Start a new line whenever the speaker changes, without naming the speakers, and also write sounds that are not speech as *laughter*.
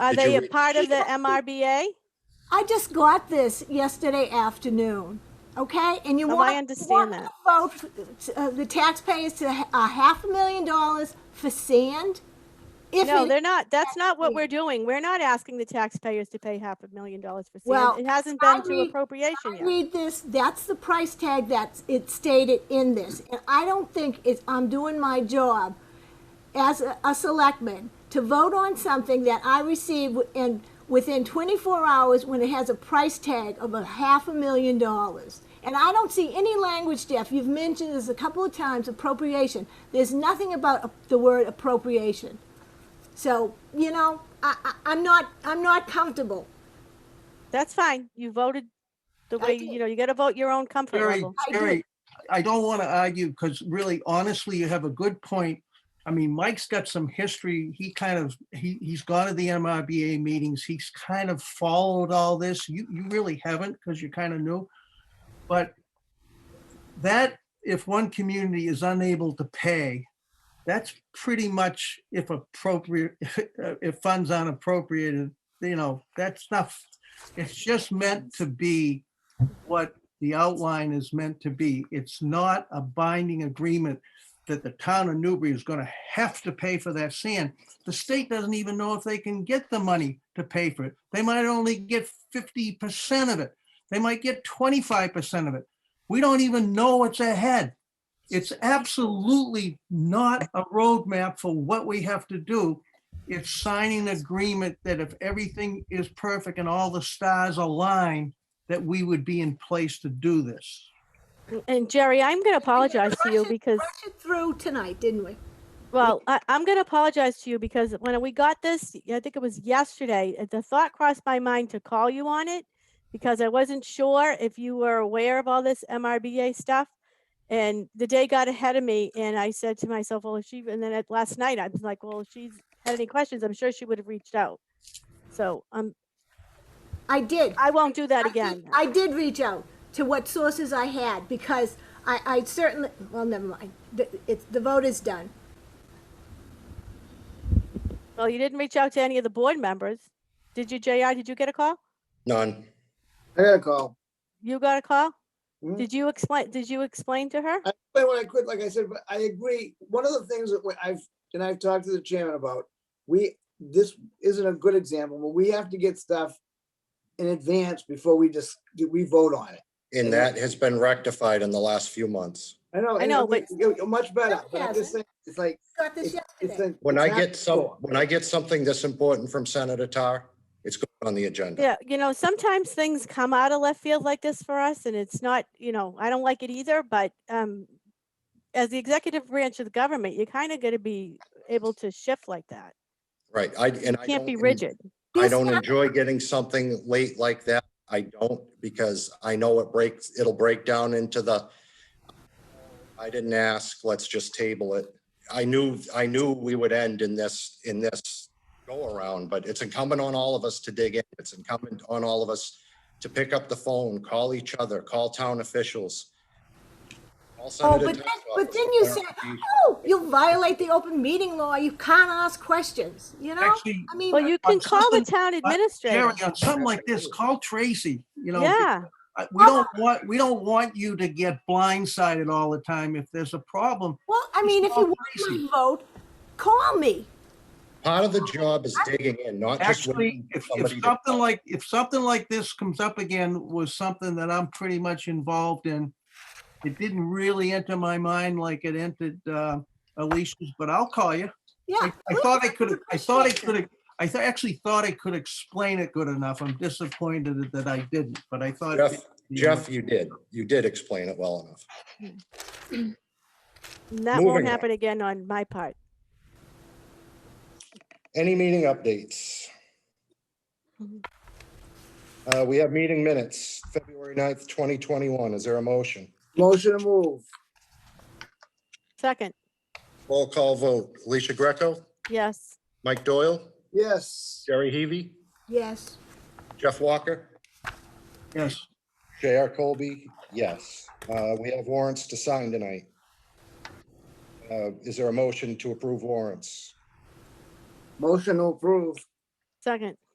Are
Did
they
you
a
read-
part of the MRBA?
I just got this yesterday afternoon, okay? And you
Oh, I
want,
understand
you want me
that.
to vote for, uh, the taxpayers to ha- a half a million dollars for sand? If
No,
it-
they're not. That's not what we're doing. We're not asking the taxpayers to pay half a million dollars for
Well,
sand. It hasn't
I
been to
read-
appropriation
I
yet.
Read this, that's the price tag that's, it's stated in this. And I don't think it's, I'm doing my job as a, a selectman to vote on something that I receive in, within twenty-four hours when it has a price tag of a half a million dollars. And I don't see any language, Jeff, you've mentioned this a couple of times, appropriation. There's nothing about a- the word appropriation. So, you know, I, I, I'm not, I'm not comfortable.
That's fine. You voted the
I
way,
did.
you know, you gotta vote your own comfort
Jerry,
level.
I do.
Jerry, I don't want to argue because really, honestly, you have a good point. I mean, Mike's got some history. He kind of, he, he's gone to the MRBA meetings. He's kind of followed all this. You, you really haven't because you're kind of new. But that, if one community is unable to pay, that's pretty much if appropriate, *laughs* if funds aren't appropriated, you know, that's not, it's just meant to be what the outline is meant to be. It's not a binding agreement that the town of Newbury is gonna have to pay for that sand. The state doesn't even know if they can get the money to pay for it. They might only get fifty percent of it. They might get twenty-five percent of it. We don't even know what's ahead. It's absolutely not a roadmap for what we have to do. It's signing an agreement that if everything is perfect and all the stars align, that we would be in place to do this.
And Jerry, I'm gonna apologize to you
Rush it-
because
Rush it through tonight, didn't we?
Well, I, I'm going to apologize to you because when we got this, I think it was yesterday, uh, the thought crossed my mind to call you on it because I wasn't sure if you were aware of all this MRBA stuff. And the day got ahead of me and I said to myself, well, if she, and then at last night, I was like, well, if she's had any questions, I'm sure she would have reached out. So, um,
I did.
I won't do that
I did-
again.
I did reach out to what sources I had because I, I certainly, well, never mind. The, it's, the vote is done.
Well, you didn't reach out to any of the board members. Did you, JR? Did you get a call?
None.
I got a call.
You got a call?
Mhm.
Did you explain, did you explain to her?
I explained when I quit, like I said, but I agree. One of the things that we- I've, and I've talked to the chairman about, we, this isn't a good example, but we have to get stuff in advance before we just, we vote on it.
And that has been rectified in the last few months.
I know.
I know,
and we- you're Much better,
No, it
but I'm just saying, it's like,
Got this
it's, it's
yesterday.
like.
When
it's
I
not
get some,
before.
when I get something this important from Senator Tar, it's going on the agenda.
Yeah, you know, sometimes things come out of left field like this for us and it's not, you know, I don't like it either, but um as the executive branch of the government, you're kind of going to be able to shift like that.
Right, I, and I.
Can't be
don't-
rigid.
I
This
don't
hap-
enjoy getting something late like that. I don't because I know it breaks, it'll break down into the, I didn't ask, let's just table it. I knew, I knew we would end in this, in this go around, but it's incumbent on all of us to dig in. It's incumbent on all of us to pick up the phone, call each other, call town officials. call
Oh,
Senator
but then,
Tuck's
but
office.
then you said, oh, you violate the open meeting law. You can't ask questions, you know?
Actually,
I mean,
Well, you can
on
call the
something-
town administrator.
Jerry, on something like this, call Tracy, you know.
Yeah,
I- We don't want, we don't want you to get blindsided all the time if there's a problem.
well, I mean, if you want
crazy.
my vote, call me.
Part of the job is digging in, not just.
Actually,
waiting for
if,
somebody
if
to-
something like, if something like this comes up again was something that I'm pretty much involved in. It didn't really enter my mind like it entered uh, Alicia's, but I'll call you.
Yeah.
I I
please,
thought I
would
could, I thought I
appreciate that.
could, I th- actually thought I could explain it good enough. I'm disappointed that I didn't, but I thought.
Jeff, Jeff, you did, you did explain it well enough.
and that won't
Moving on.
happen again on my part.
Any meeting updates?
Mhm.
Uh, we have meeting minutes, February 9th, twenty twenty-one. Is there a motion?
Motion to move,
Second,
Roll call vote. Alicia Greco,
yes.
Mike Doyle,
yes.
Jerry Heavy,
Yes.
Jeff Walker,
Yes.
J.R. Colby, yes. Uh, we have warrants to sign tonight. Uh, is there a motion to approve warrants?
Motion to approve,
Second.